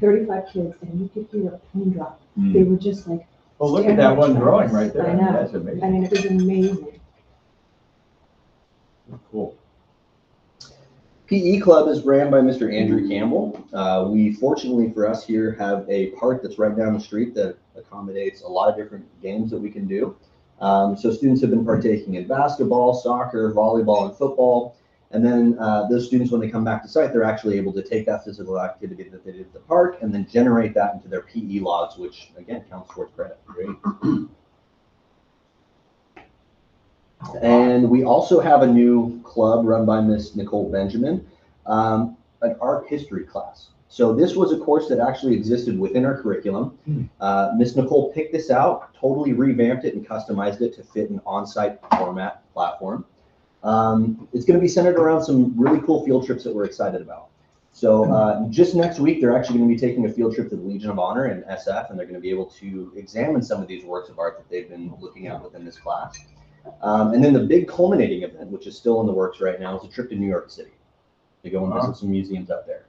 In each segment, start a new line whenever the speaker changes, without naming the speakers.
thirty-five kids, and you could hear a pin drop.
Mm.
They were just like,
Well, Oh, look at that one drawing right there.
I know.
That's
I
amazing.
mean, it was amazing.
Cool.
PE E Club is ran by Mr. Andrew Campbell. Uh, we fortunately for us here have a park that's right down the street that accommodates a lot of different games that we can do. Um, so students have been partaking in basketball, soccer, volleyball, and football. And then uh, those students, when they come back to site, they're actually able to take that physical activity that they did at the park and then generate that into their PE logs, which again counts towards credit. Great. And we also have a new club run by Miss Nicole Benjamin, um, an art history class. So this was a course that actually existed within our curriculum.
Hmm.
Uh, Miss Nicole picked this out, totally revamped it and customized it to fit an on-site format platform. Um, it's going to be centered around some really cool field trips that we're excited about. So uh, just next week, they're actually going to be taking a field trip to the Legion of Honor in SF, and they're going to be able to examine some of these works of art that they've been looking at within this class. Um, and then the big culminating event, which is still in the works right now, is a trip to New York City to go and
Wow.
visit some museums up there.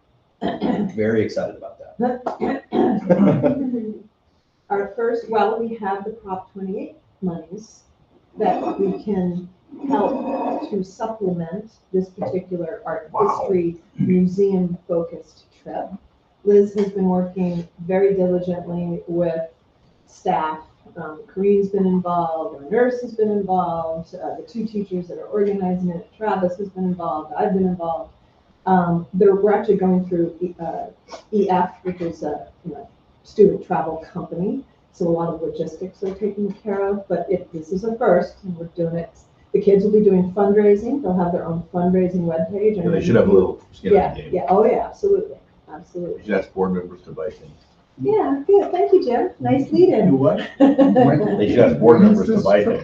Very excited about
Mm-hmm.
that.
Our first, well, we have the Prop twenty-eight monies that we can help to supplement this particular art
Wow.
history museum-focused trip. Liz has been working very diligently with staff. Um, Corinne's been involved, our nurse has been involved, uh, the two teachers that are organizing it, Travis has been involved, I've been involved. Um, they're, we're actually going through, E- uh, EF, which is a, you know, student travel company. So a lot of logistics are taken care of, but if this is a first, and we're doing it, the kids will be doing fundraising, they'll have their own fundraising webpage. and
Yeah, They should have a little skin in
Yeah,
the game.
yeah, oh yeah, absolutely,
We
absolutely.
should ask board members to buy things.
Yeah, good, thank you, Jim, nice lead-in.
what?
So,
They should ask board members to buy things.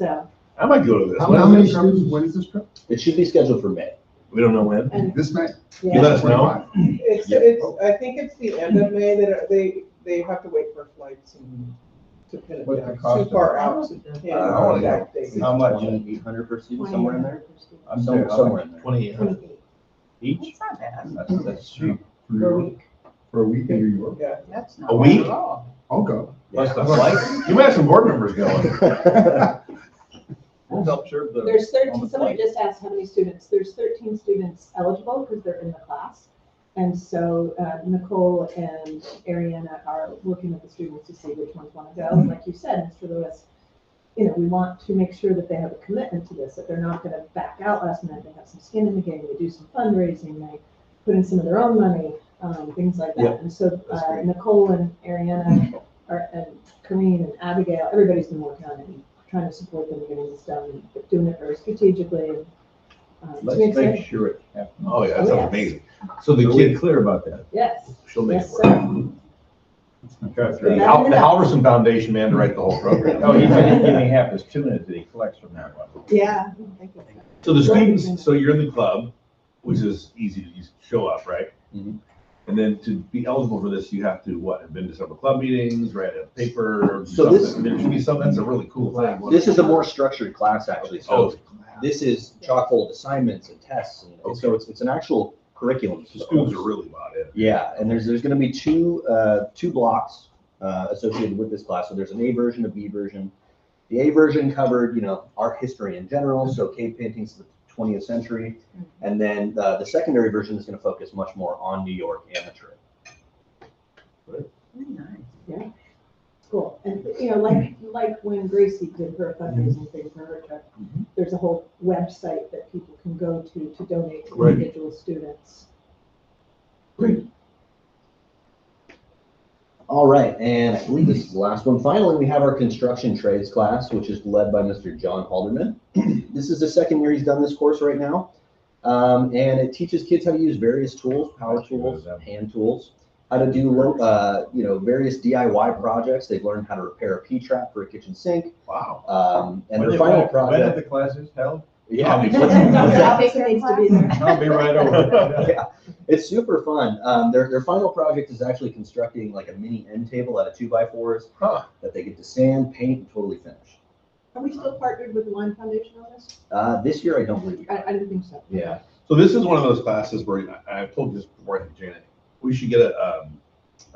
I might go to this.
How
When
how
is
many
this?
students, when is this trip?
It should be scheduled for May.
We don't know when.
and,
This May?
You let
yeah,
us know.
It's,
Yeah.
it's, I think it's the end of May that are- they, they have to wait for flights and to pin it
What's the
down,
cost Um,
too far
of
out.
Uh, I wanna
How much?
Eight hundred per student, somewhere in there?
I'm
Some-
there.
somewhere in there.
Twenty-eight hundred
Twenty-eight
each?
It's not bad.
That's, that's cheap.
per week.
For a week in New York?
Yeah,
That's not
A
bad
week?
at all.
I'll go.
Plus the flight. You might have some board members going. We'll help serve the.
There's
on the
thirteen, somebody
flight.
just asked how many students, there's thirteen students eligible because they're in the class. And so uh, Nicole and Ariana are working with the students to see which ones want to go. And Like you said, Mr. Lewis, you know, we want to make sure that they have a commitment to this, that they're not gonna back out last minute, they have some skin in the game, they do some fundraising, they put in some of their own money, um, things like
Yeah,
that. And so
that's
uh,
great.
Nicole and Ariana are, and Corinne and Abigail, everybody's been working on it, and trying to support them in getting this done, but doing it very strategically. and, uh, to
Let's
sense.
make sure it happens. Oh, yeah, that
Oh, yes.
sounds amazing. So the kid clear about that.
Yes,
She'll make it
yes,
work.
sir.
Okay.
So
The
that
Hal-
ended
the
up-
Halverson Foundation man to write the whole
Oh,
program. Oh,
he's
he's
gonna
going
give
give
me
me half his tuna that he collects from that one.
Yeah. thank you.
So the students, so you're in the club, which is easy to just show up, right?
Mhm.
And then to be eligible for this, you have to, what, have been to several club meetings, write a paper,
So this-
something. There should be some, that's a really cool thing.
This is a more structured class, actually,
Oh,
so this is chock full of assignments and tests, and and so
Okay.
it's, it's an actual curriculum.
the students are really about it.
Yeah, and there's, there's gonna be two, uh, two blocks, uh, associated with this class, so there's an A version, a B version. The A version covered, you know, art history in general, so cave paintings of the twentieth century. And then, uh, the secondary version is gonna focus much more on New York amateur.
Very nice.
Cool. And, you know, like, like when Gracie did her fundraising
Mm-hmm.
thing for her trip,
Mhm.
there's a whole website that people can go to to donate to
Right.
individual students.
All right, and I believe this is the last one. Finally, we have our construction trades class, which is led by Mr. John Halderman. This is the second year he's done this course right now. Um, and it teaches kids how to use various tools, power tools, hand tools, how to do, lo- uh, you know, various DIY projects. They've learned how to repair a P-trap for a kitchen sink.
Wow.
Um,
When
and their
they-
final
when- When are
project.
the classes held?
That needs to be there.
I'll be right over.
yeah, it's super fun. Um, their, their final project is actually constructing like a mini end table out of two by fours
Huh.
that they get to sand, paint, and totally finish.
Are we still partnered with the Lime Foundation on this?
Uh, this year, I don't believe. we
I,
are.
I didn't think so.
Yeah.
So this is one of those classes where, I- I've told you this before, I think, Janet, we should get a, um,